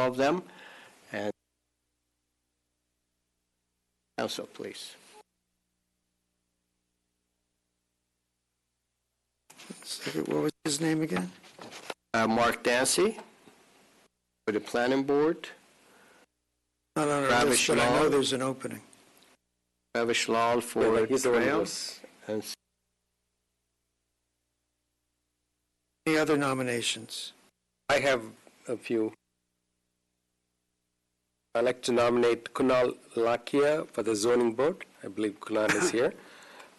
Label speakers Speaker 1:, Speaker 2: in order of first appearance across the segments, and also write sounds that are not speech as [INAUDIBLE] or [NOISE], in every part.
Speaker 1: of them, and council, please.
Speaker 2: Second, What was his name again?
Speaker 1: Uh, Mark Dancy for the planning board,
Speaker 2: Not on our
Speaker 1: Travis
Speaker 2: list, but I know
Speaker 1: Shaw.
Speaker 2: there's an opening.
Speaker 1: Ravish Lal for
Speaker 3: Wait, he's the one who
Speaker 1: trails,
Speaker 3: was-
Speaker 1: and
Speaker 2: Any other nominations?
Speaker 3: I have a few. I'd like to nominate Kunal Lakia for the zoning board. I believe Kunal is here.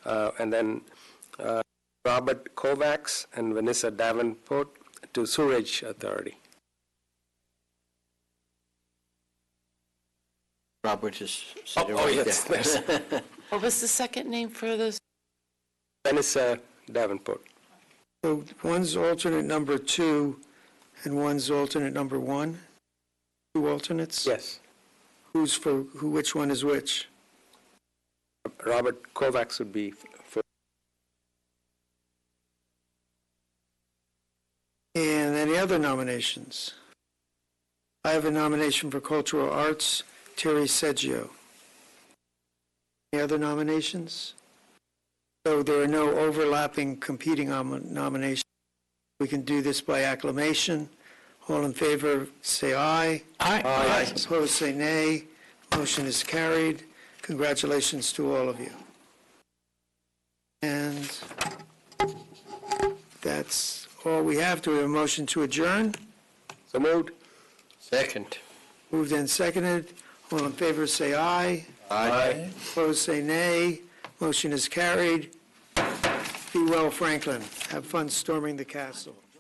Speaker 3: Uh, And then uh, Robert Kovacs and Vanessa Davenport to Sewerage Authority.
Speaker 1: Robert is
Speaker 3: Oh,
Speaker 1: sitting
Speaker 3: oh,
Speaker 1: right
Speaker 3: yes,
Speaker 1: there. [LAUGHS]
Speaker 4: What was the second name for this?
Speaker 3: Vanessa Davenport.
Speaker 2: So one's alternate number two and one's alternate number one? Two alternates?
Speaker 3: Yes.
Speaker 2: Who's for, who, which one is which?
Speaker 3: Robert Kovacs would be for
Speaker 2: And any other nominations? I have a nomination for Cultural Arts, Terry Seggio. Any other nominations? So there are no overlapping competing nom- nominations. We can do this by acclamation. All in favor, say aye.
Speaker 3: Aye.
Speaker 2: Opposed, say nay. Motion is carried. Congratulations to all of you. And that's all we have. Do we have a motion to adjourn?
Speaker 3: So moved.
Speaker 1: Second.
Speaker 2: Moved and seconded. All in favor, say aye.
Speaker 1: Aye.
Speaker 2: Opposed, say nay. Motion is carried. Be well, Franklin. Have fun storming the castle.